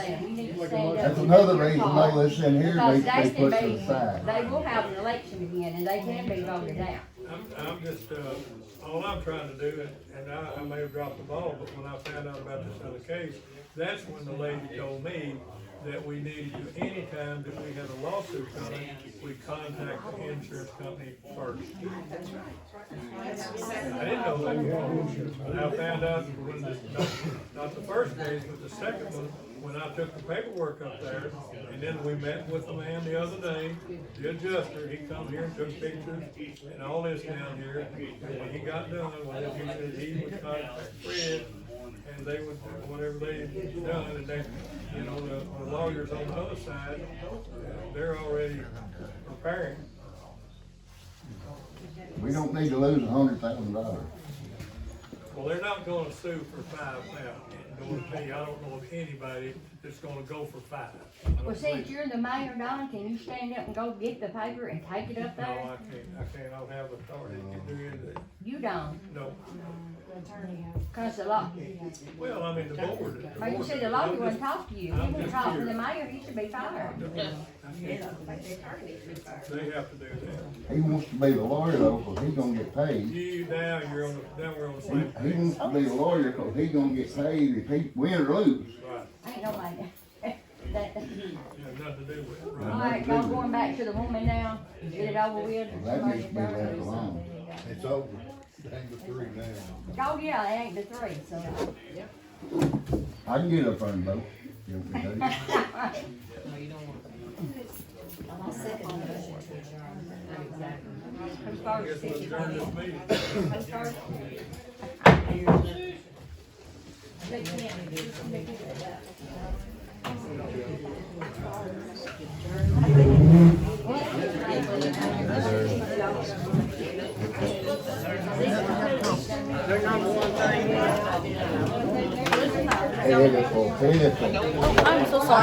We need to Like a stand motion. up That's and another make reason your all call. this in here Because needs to be they put to can the side. be, they will have an election again and they can be voted out. I'm, I'm just, uh, all I'm trying to do, and- and I, I may have dropped the ball, but when I found out about this other case, that's when the lady told me that we needed to, anytime that we had a lawsuit coming, we contact the insurance company first. I didn't know that before, but I found out when, the- not, not the first case, but the second one, when I took the paperwork up there, and then we met with the man the other day, the adjuster, he come here and took pictures and all this down here, and when he got done, when he said he would contact Fred, and they would, do whatever they had done, and they, you know, the the lawyers on the other side, they're already preparing. We don't need to lose a hundred thousand dollars. Well, they're not gonna sue for five thousand, I don't know of anybody that's gonna go for five. I don't Well, think- since you're the mayor, Don, can you stand up and go get the paper and take it up No, I there? can't, I can't, I don't have authority to do anything, You don't, no, cause the law, well, I mean, the board. the or you board- see, the law wouldn't talk to you, he wouldn't talk to the mayor, he should be fired. They have to do that. He wants to be the lawyer though, 'cause he gonna get paid. You, now you're on, the now we're on the He, same he page. wants to be the lawyer, 'cause he gonna get paid if he win or lose. Right, Ain't nobody, that, you have nothing to do with it, right? alright, y'all going back to the woman now, get it over with. That needs to be left alone. It's over, hang the three now. Oh, yeah, it ain't the three, so, I can get up there and vote. You want me to? who's I guess first? we'll adjourn this meeting. Who's first? They can't. Hey, that's all. Hey, that's all.